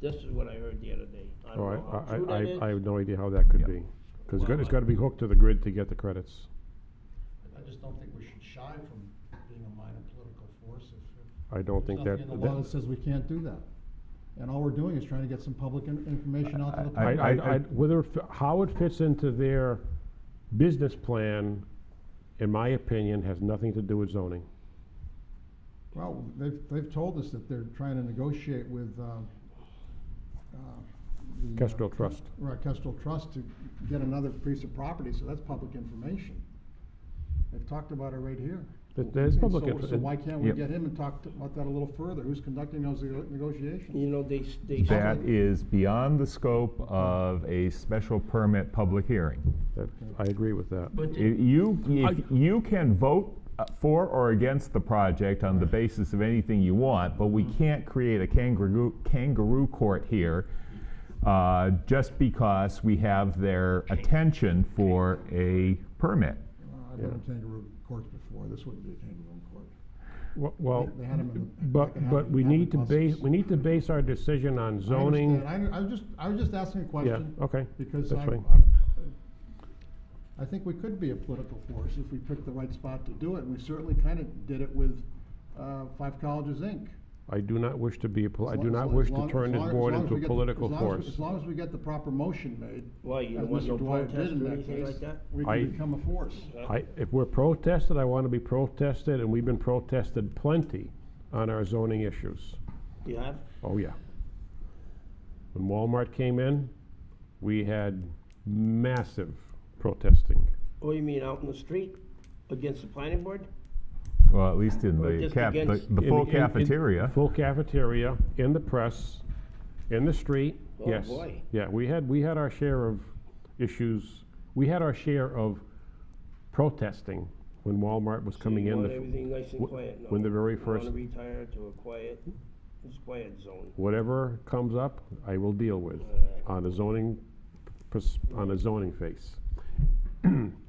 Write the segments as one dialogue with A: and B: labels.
A: This is what I heard the other day. I
B: Oh,
A: don't
B: I,
A: know how
B: I-
A: true that
B: I,
A: is.
B: I, I have no idea how that could
C: Yeah.
B: be. Cause it's
A: Well,
B: got, it's
A: I-
B: gotta be hooked to the grid to get the credits.
D: I just don't think we should shy from being a minor political force if.
B: I don't think that,
D: There's nothing in the law that
B: that,
D: says we can't do that. And all we're doing is trying to get some public in- information out to the
B: I,
D: public.
B: I, I, whether, it fi- how it fits into their business plan, in my opinion, has nothing to do with zoning.
D: Well, they've, they've told us that they're trying to negotiate with, um, uh, the, uh,
B: Kestrel Trust.
D: Right, Kestrel Trust to get another piece of property, so that's public information. They've talked about it right here.
B: That- that is
D: And
B: public
D: so-
B: info-
D: So why can't we
C: Yep.
D: get him and talk to- about that a little further? Who's conducting those nego- negotiations?
A: You know, they, s- they.
C: That is beyond the scope of a special permit public hearing.
B: That, I agree with that.
A: But
C: I-
A: the-
C: You, if you can vote uh, for or against the project on the basis of anything you want, but we can't create a kangaroo, kangaroo court here uh, just because we have their attention for a permit.
D: Uh, I've been in kangaroo courts before, this wouldn't be a kangaroo court.
B: Well- Well,
D: They had 'em in the- like
B: but,
D: an
B: but
D: avid-
B: we
D: avid
B: need to base,
D: buses.
B: we need to base our decision on
D: I
B: zoning.
D: understand. I, I was just, I was just asking a question.
B: okay,
D: Because
B: that's
D: I,
B: fine.
D: I, I think we could be a political force if we picked the right spot to do it, and we certainly kind of did it with, uh, Five Colleges Inc.
B: I do not wish to be, a pol- I
D: As
B: do
D: lo-
B: not
D: as
B: wish
D: long-
B: to
D: as
B: turn this
D: long- as
B: board
D: long as
B: into
D: we
B: a
D: get the-
B: political
D: as long as we-
B: force.
D: As long as we get the proper motion made.
A: Why, you
D: as
A: don't want
D: Mr.
A: no
D: Dwyer did
A: protest
D: in
A: or
D: that
A: anything
D: case,
A: like that?
D: We
B: I-
D: can become a force.
B: I, if we're protested, I want to be protested, and we've been protested plenty on our zoning issues.
A: You have?
B: Oh, yeah. When Walmart came in, we had massive protesting.
A: What do Oh, you mean, out in the street against the planning board?
C: Well, at least in
A: Or
C: the
A: just
C: cap, the
A: against-
C: the
B: In-
C: full
B: in- in-
C: cafeteria.
B: Full cafeteria, in the press, in the street,
A: Oh,
B: yes.
A: boy.
B: Yeah, we had, we had our share of issues, we had our share of protesting when Walmart was coming in.
A: You
B: the
A: want
B: f-
A: everything nice and
B: wh-
A: quiet now.
B: when the very
A: I
B: first-
A: wanna retire to a quiet, it's quiet zone.
B: Whatever comes up, I will deal with on a zoning, pers- on a zoning face.
A: Now,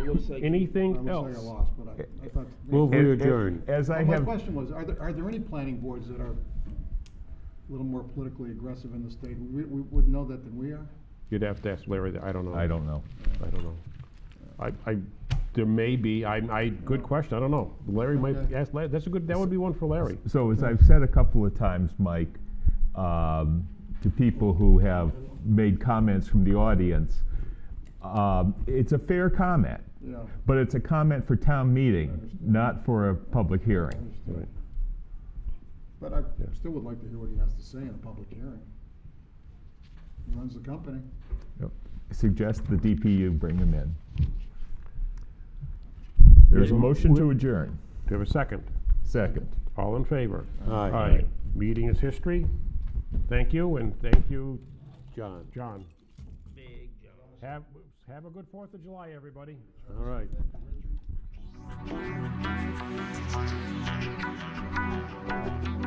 A: it looks like.
D: I
B: Anything
D: was saying I
B: else?
D: lost, but I, I thought.
B: Move
C: As-
B: We
C: as-
B: adjourn.
C: As I
D: Well, My
C: have.
D: question was, are there, are there any planning boards that are a little more politically aggressive in the state? We, we would know that than we are.
B: You'd have to ask Larry, that. I don't know.
C: I don't know.
B: I don't know. I, I, there may be, I, I, good question, I don't know. Larry might,
D: Okay.
B: ask, Larry. that's a good, that would be one for Larry.
C: So as I've said a couple of times, Mike, um, to people who have made comments from the audience, um, it's a fair comment,
D: Yeah.
C: but it's a comment for town meeting, not for a public hearing.
B: Right.
D: But I still would like to hear what he has to say in a public hearing. He runs the company.
C: Yep. Suggest the DPU bring them in. There's a motion to adjourn.
B: Do you have a second?
C: Second.
B: All in favor?
E: Aye.
B: Aye. Meeting is history. Thank you, and thank you,
E: John.
B: John.
A: Big zone.
B: Have, have a good Fourth of July, everybody.
E: All right.
D: Richard?